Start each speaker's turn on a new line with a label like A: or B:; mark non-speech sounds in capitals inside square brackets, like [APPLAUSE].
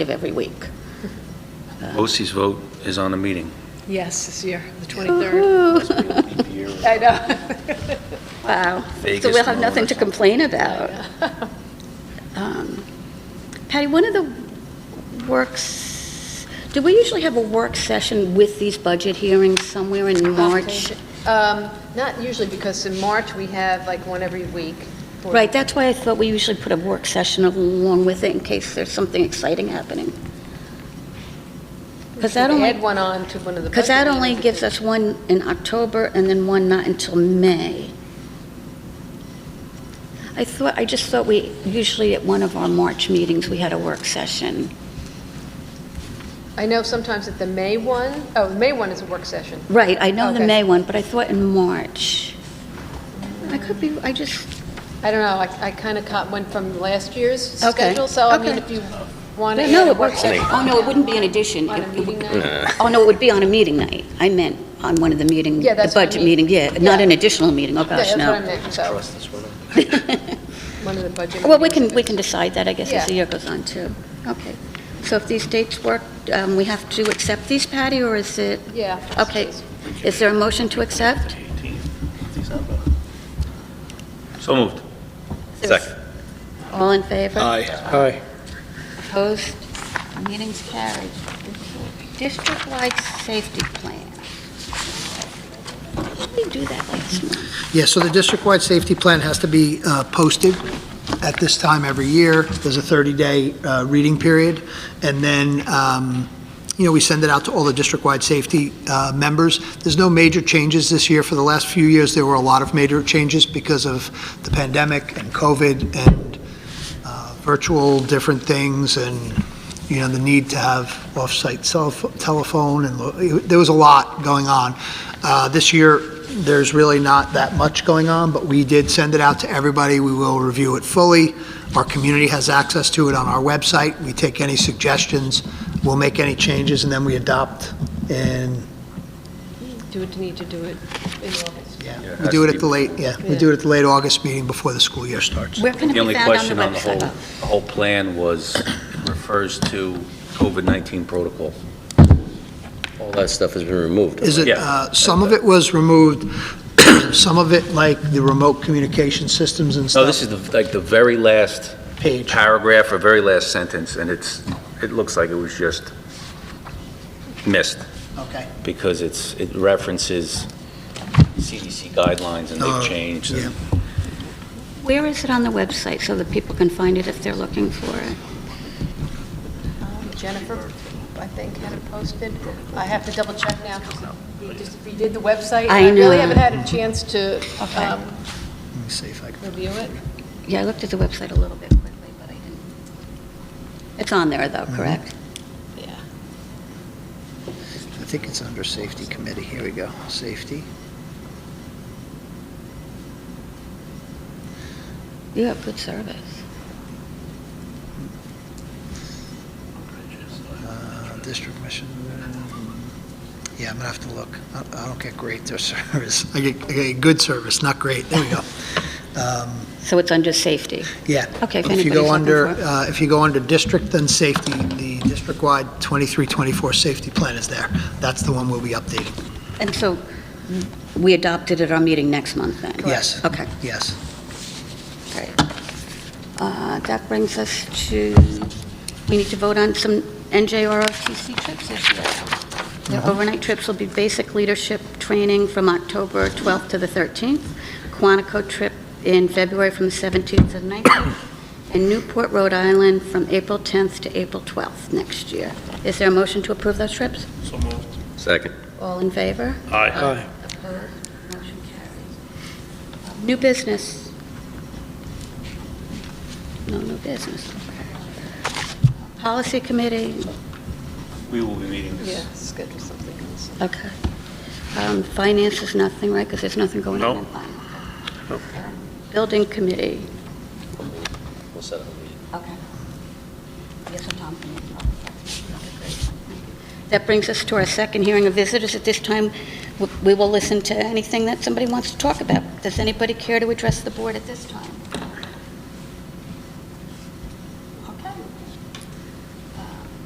A: of every week.
B: OC's vote is on the meeting.
A: [LAUGHS]
C: Yes, this year, the 23rd.
A: Woo-hoo.
C: [LAUGHS] I know.
A: Wow.
B: Vegas
A: So we'll have
B: and all
A: nothing to
B: that.
A: complain about. [LAUGHS] Um, Patty, one of the works, do we usually have a work session with these budget hearings somewhere in March?
C: Um, Not usually, because in March, we have like one every week. for-
A: Right, that's why I thought we usually put a work session along with it in case there's something exciting happening.
C: We
A: Because that
C: should
A: only,
C: Add one on to one of the.
A: because that
C: budget
A: only
C: meetings.
A: gives us one in October and then one not until May. I thought, I just thought we, usually at one of our March meetings, we had a work session.
C: I know sometimes at the May one, oh, the May one is a work session.
A: Right, I know the
C: Okay.
A: May one, but I thought in March. I could be, I just,
C: I don't know, I kind of caught one from last year's
A: Okay,
C: schedule, so I mean,
A: okay.
C: if you want to
A: no,
C: add a
A: it
C: work
A: works.
C: session.
A: Oh, no, it wouldn't be an addition.
C: On a
A: It- it
C: meeting
A: would-
C: night?
A: Oh, no, it would be on a meeting night. I meant on one of the meeting,
C: Yeah,
A: the
C: that's what I
A: budget
C: mean.
A: meeting, yeah, not
C: Yeah.
A: an additional meeting, oh
C: Yeah,
A: gosh,
C: That's what I
A: no.
C: meant, so,
A: [LAUGHS]
C: one of the budget.
A: Well, we can,
C: meetings.
A: we can decide that, I guess, as the
C: Yeah.
A: year goes on, too. Okay. So if these dates work, um, we have to accept these, Patty, or is it?
C: Yeah.
A: Okay, is there a motion to accept?
B: So moved.
A: Second. All in favor?
D: Aye.
A: Opposed? Meeting's carried. District-wide safety plan. We do that last month.
D: Yeah, so the district-wide safety plan has to be uh, posted at this time every year. There's a 30-day uh, reading period, and then, um, you know, we send it out to all the district-wide safety uh, members. There's no major changes this year. For the last few years, there were a lot of major changes because of the pandemic and COVID and uh, virtual different things, and, you know, the need to have off-site cell pho- telephone, and lo- there was a lot going on. Uh, This year, there's really not that much going on, but we did send it out to everybody. We will review it fully. Our community has access to it on our website. We take any suggestions, we'll make any changes, and then we adopt. And,
C: Do it, need to do it in August.
D: yeah,
B: it
D: we
B: has
D: do
B: to
D: it
B: be-
D: at the late, yeah, we do it at the late August meeting before the school year starts.
A: Where can it
B: The
A: be
B: only
A: found on
B: question
A: the
B: on the whole,
A: website?
B: the whole plan was, it refers to COVID-19 protocol.
E: All that stuff has been removed.
D: Is it,
B: Yeah.
D: uh, some of it was removed, [CLEARS THROAT] some of it, like the remote communication systems and stuff.
B: No, this is the- like the very last
D: Page.
B: paragraph or very last sentence, and it's, it looks like it was just missed,
D: Okay.
B: because it's, it references CDC guidelines, and
D: Uh,
B: they've changed. and-
D: yeah.
A: Where is it on the website so that people can find it if they're looking for it?
C: Um, Jennifer, I think, had it posted. I have to double check now, because we just redid the website. and
A: I
C: I really
A: know.
C: haven't had a chance to
A: Okay.
C: um,
D: Let me see if I can.
C: review it.
A: Yeah, I looked at the website a little bit quickly, but I didn't. It's on there, though, correct?
C: Yeah.
D: I think it's under Safety Committee. Here we go. Safety.
A: You have good service.
D: Uh, District mission. Yeah, I'm gonna have to look. I- I don't get great their [LAUGHS] service. I get, I get good service, not great. There we go. Um,
A: So it's under safety.
D: Yeah.
A: [LAUGHS] Okay, if
D: If you
A: anybody's
D: go
A: looking
D: under,
A: for it.
D: uh, if you go under district, then safety, the district-wide 2324 safety plan is there. That's the one we'll be updating.
A: And so we adopted at our meeting next month, then?
D: Yes.
A: Okay.
D: Yes.
A: Great. Uh, That brings us to, we need to vote on some NJROTC trips this year. The overnight trips will be basic leadership training from October 12th to the 13th, Quantico trip in February from 17th to 19th, and Newport, Rhode Island from April 10th to April 12th next year. Is there a motion to approve those trips?
E: Second.
A: All in favor?
D: Aye.
A: Opposed? Motion carries. New business. No new business. Policy committee,
B: We will be meeting
C: Yeah,
B: this.
C: schedule something else.
A: okay. Um, Finance is nothing, right, because there's nothing going on
B: No.
A: in finance. Building committee.
E: We'll set up a meeting.
A: Okay. Yes, and Tom. That brings us to our second hearing of visitors. At this time, w- we will listen to anything that somebody wants to talk about. Does anybody care to address the board at this time?